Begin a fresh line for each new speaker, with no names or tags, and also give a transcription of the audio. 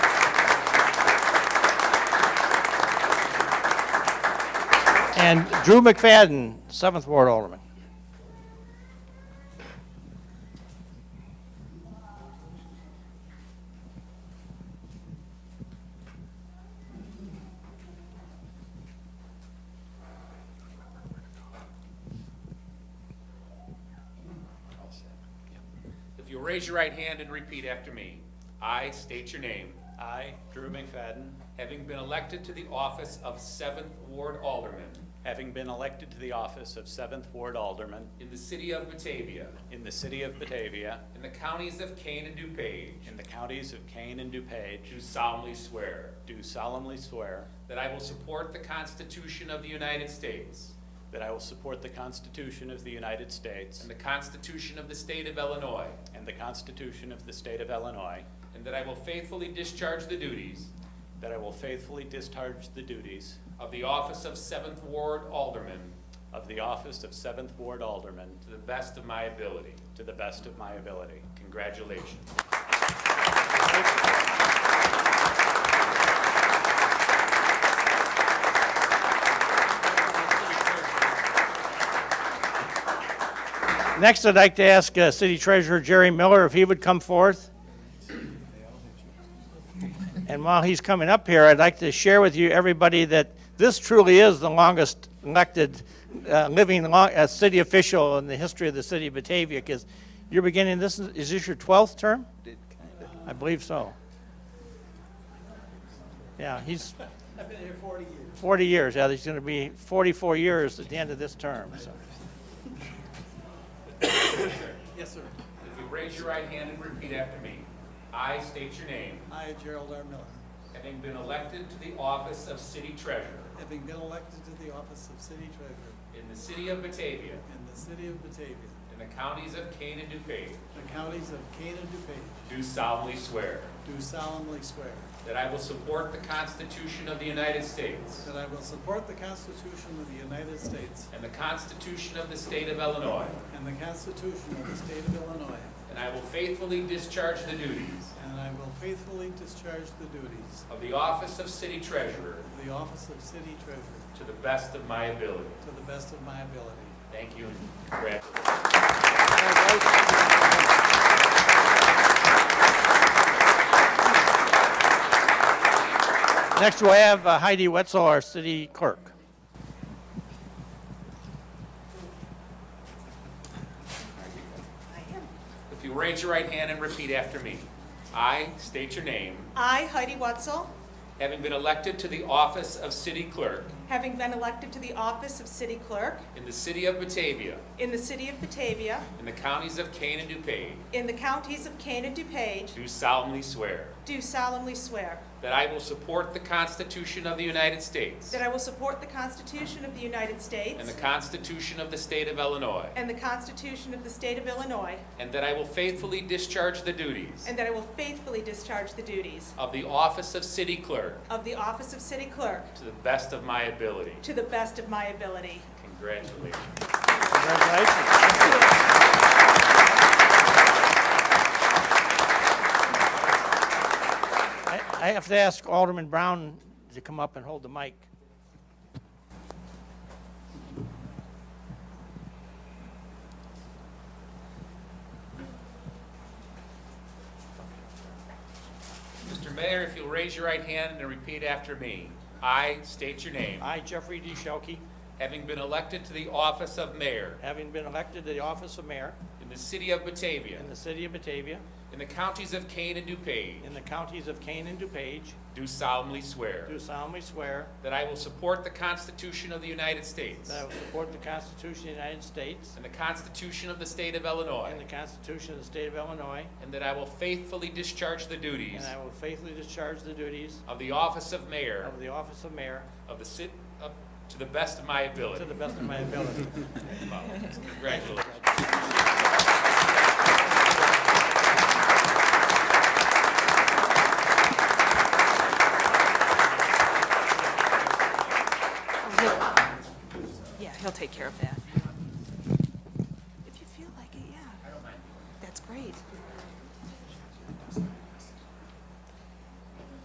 And Drew McFadden, 7th Ward Alderman.
If you raise your right hand and repeat after me, I state your name,
I, Drew McFadden,
having been elected to the office of Seventh Ward Alderman
having been elected to the office of 7th Ward Alderman
in the city of Batavia,
in the city of Batavia,
in the counties of Kane and DuPage,
in the counties of Kane and
do
DuPage,
solemnly swear
do solemnly swear
that I will support the Constitution of the United States
that I will support the Constitution of the United States
and the Constitution of the State of Illinois,
and the Constitution of the State of Illinois,
and that I will faithfully discharge the duties
that I will faithfully discharge the duties
of the office of Seventh Ward Alderman
of the office of 7th Ward Alderman
to the best of my ability.
to the best of my ability.
Congratulations.
Next, I'd like to ask uh, City Treasurer Jerry Miller if he would come forth. And while he's coming up here, I'd like to share with you, everybody, that this truly is the longest elected, uh, living lo- uh, city official in the history of the city of Batavia, because you're beginning, this is is this your 12th term? I believe so. Yeah, he's... I've been here 40 years. 40 years, yeah, he's going to be 44 years at the end of this term, so...
If you raise your right hand and repeat after me, I state your name,
I, Gerald R. Miller,
having been elected to the office of city treasurer
having been elected to the office of city treasurer
in the city of Batavia,
in the city of Batavia,
in the counties of Kane and DuPage,
the counties of Kane and DuPage,
do solemnly swear
do solemnly swear
that I will support the Constitution of the United States
that I will support the Constitution of the United States
and the Constitution of the state of Illinois,
and the Constitution of the state of Illinois,
and I will faithfully discharge the duties
and I will faithfully discharge the duties
of the office of city treasurer
of the office of city treasurer
to the best of my ability.
to the best of my ability.
Thank you and congratulations.
Next, we'll have uh, Heidi Wetzel, our city clerk.
If you raise your right hand and repeat after me. I state your name,
I, Heidi Wetzel,
having been elected to the office of city clerk
having been elected to the office of city clerk
in the city of Batavia,
in the city of Batavia,
in the counties of Kane and DuPage,
in the counties of Kane and DuPage,
do solemnly swear
do solemnly swear
that I will support the Constitution of the United States
that I will support the Constitution of the United
and
States
the Constitution of the state of Illinois,
and the Constitution of the state of Illinois,
and that I will faithfully discharge the duties
and that I will faithfully discharge the duties
of the office of city clerk
of the office of city clerk
to the best of my ability.
to the best of my ability.
Congratulations.
Congratulations. I I have to ask Alderman Brown to come up and hold the mic.
Mr. Mayor, if you'll raise your right hand and repeat after me. I state your name.
I, Jeffrey D. Shelkey,
Having been elected to the office of mayor
having been elected to the office of mayor
in the city of Batavia,
in the city of Batavia,
in the counties of Kane and DuPage,
in the counties of Kane and DuPage,
do solemnly swear
do solemnly swear
that I will support the Constitution of the United States
that I will support the Constitution of the United States
and the Constitution of the state of
and
Illinois,
the Constitution of the state of Illinois,
and that I will faithfully discharge the duties
and I will faithfully discharge the duties
of the office of mayor
of the office of mayor
of the city, to the best of my
to
ability.
the best of my ability.
Congratulations.
Yeah, he'll take care of that.